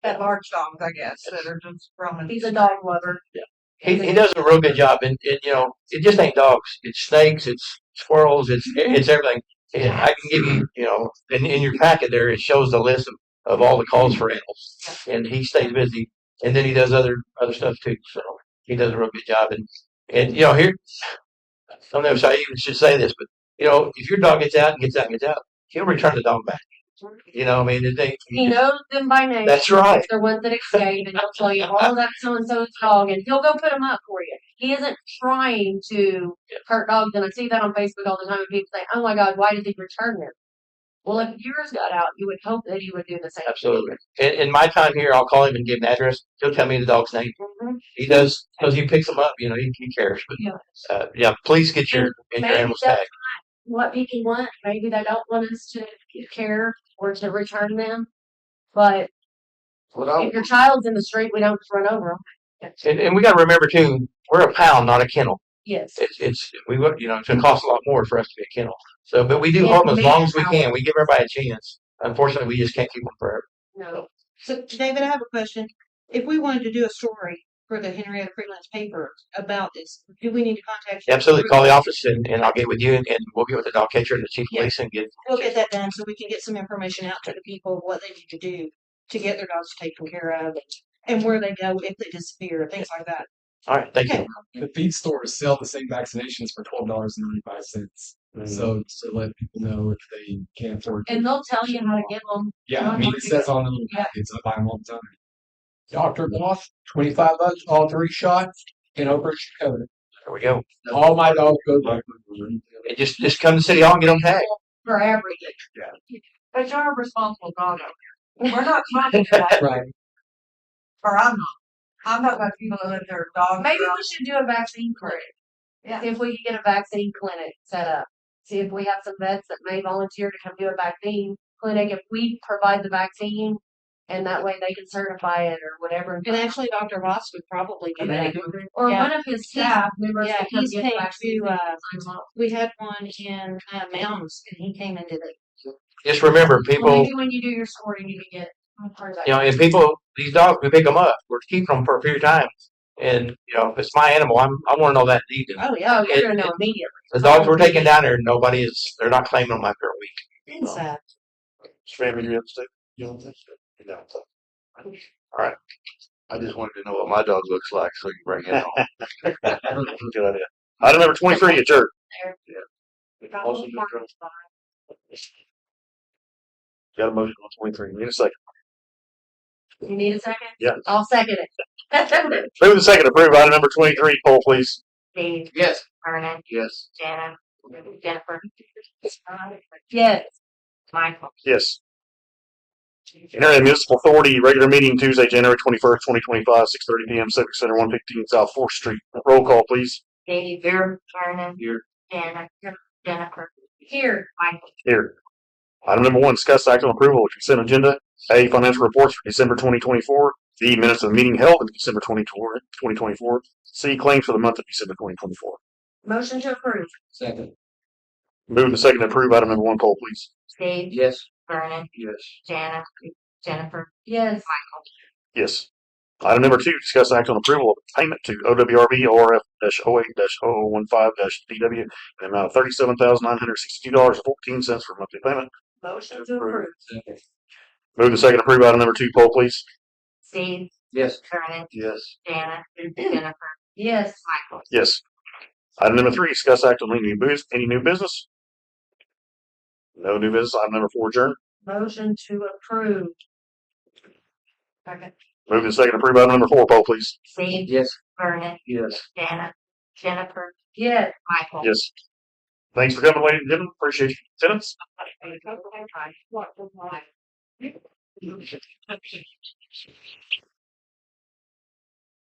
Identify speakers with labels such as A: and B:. A: Yeah.
B: large dogs, I guess, that are just roaming.
A: He's a dog lover.
C: He, he does a real good job, and, and you know it just ain't dogs. It's snakes. It's squirrels. It's it's everything. And I can give you you know in, in your packet there it shows the list of, of all the calls for animals, and he stays busy, and then he does other other stuff too. So he does a real good job, and and you know here I don't know if I even should say this, but you know if your dog gets out and gets out and gets out, he'll return the dog back. You know I mean it ain't,
A: He knows them by name.
C: that's right.
A: If They're ones that escape, and he'll tell you all that so and so's dog, and he'll go put them up for you. He isn't trying to hurt dogs, and I see that on Facebook all the time. And people say, "Oh my God, why did he return them?" Well, if yours got out, you would hope that he would do the same. thing.
C: Absolutely. In, in my time here, I'll call him and give him an address. He'll tell me the dog's name.
A: Mhm.
C: He does because he picks them up. You know, he, he cares. But
A: Yeah.
C: uh, yeah, please get your get your
A: Maybe
C: animals
A: that's
C: tagged.
A: What people want, maybe they don't want us to care or to return them, but
D: What I,
A: if your child's in the street, we don't just run over them.
C: And, and we got to remember too, we're a pound, not a kennel.
A: Yes.
C: It's it's we would you know it's gonna cost a lot more for us to be a kennel. So, but we do
A: Mm-hmm. Yeah,
C: hold them as long as we
A: manpower.
C: can. We give everybody a chance. Unfortunately, we just can't keep them forever.
A: No.
B: So, David, I have a question. If we wanted to do a story for the Henrietta Freelance paper about this, do we need to contact you?
C: Absolutely, call the office and, and I'll get with you and, and we'll get with the dog catcher and the chief of
B: Yeah.
C: police and get
B: We'll get that done so we can get some information out to the people of what they need to do to get their dogs taken care of and where they go if they disappear, things like that.
C: all right. Thank you.
D: the feed stores sell the same vaccinations for twelve dollars and ninety five cents.
C: Mm-hmm.
D: So just to let people know if they can't afford.
A: And they'll tell you how to get them.
D: yeah, I mean it says on the little
A: Yeah.
D: packets. I buy them all the time. Doctor Goff, twenty five bucks, all three shots in Oprah, Dakota.
C: There we go.
D: All my dogs go back.
C: And just just come to city hall and get them tagged.
A: for everything.
B: But you're a responsible dog owner. We're not trying to, like,
D: Right.
B: or I'm not. I'm not about people that let their dogs.
A: Maybe
B: out.
A: we should do a vaccine clinic.
B: Yeah.
A: If we could get a vaccine clinic set up, see if we have some vets that may volunteer to come do a vaccine clinic. If we provide the vaccine, and that way they can certify it or whatever.
E: And actually, Dr. Ross would probably do that.
A: Or
E: yeah.
A: one of his staff members
E: Yeah,
A: can come
E: he's
A: get
E: paid
A: the vaccine.
E: to, uh,
A: and sign off.
E: we had one in uh, Mounds and he came into the,
C: Just remember,
A: Well,
C: people
A: maybe when you do your story, you can get. part of that.
C: you know, and people, these dogs, we pick them up, we're keeping them for a period of time. And, you know, if it's my animal, I'm, I want to know that deed.
A: Oh yeah, oh,
C: It-
A: you're gonna know
C: it-
A: immediately.
C: The dogs we're taking down there, nobody is, they're not claiming them after a week.
E: inside.
F: Sammy, you upset? You don't think so? You don't. All right. I just wanted to know what my dog looks like, so you bring it on. Good idea. Item number twenty-three, adjourn.
A: There.
F: Yeah. Also adjourn. Got a motion on twenty-three, need a second.
A: You need a second?
F: Yeah.
A: I'll second it.
F: Move the second, approve item number twenty-three, poll please.
E: Dave,
C: Yes.
E: Vernon,
F: Yes.
E: Jana, Jennifer,
A: Yes.
E: Michael.
F: Yes. Internet Municipal Authority, regular meeting Tuesday, January twenty-first, twenty twenty-five, six thirty P M, Civic Center, one fifteen South Fourth Street. Roll call, please.
E: Dave, Vernon,
C: Here.
E: Jana, Jennifer,
A: Here.
E: Michael.
F: Here. Item number one, discuss act on approval of consent agenda. A, financial reports for December 2024. D, minutes of the meeting held in December 2024. 2024. C, claims for the month of December 2024.
A: Motion to approve.
D: Second.
F: Move the second to approve item number one poll, please.
E: Dave,
C: Yes.
E: Vernon,
C: Yes.
E: Jana, Jennifer,
A: Yes.
E: Michael.
F: Yes. Item number two, discuss act on approval of payment to OWRB ORF 08 0015 DW in the amount of $37,962.14 for monthly payment.
A: Motion to approve.
D: Second.
F: Move the second to approve item number two poll, please.
E: Dave,
C: Yes.
E: Vernon,
F: Yes.
E: Jana, Jennifer,
A: Yes.
E: Michael.
F: Yes. Item number three, discuss act on any new business, any new business? No new business. Item number four, adjourn.
A: Motion to approve. Second.
F: Move to second, approve item number four, poll please.
E: Dave,
C: Yes.
E: Vernon,
C: Yes.
E: Jana, Jennifer,
A: Yes.
E: Michael.
F: Yes. Thanks for coming, ladies and gentlemen. Appreciate your attendance.
E: What was mine?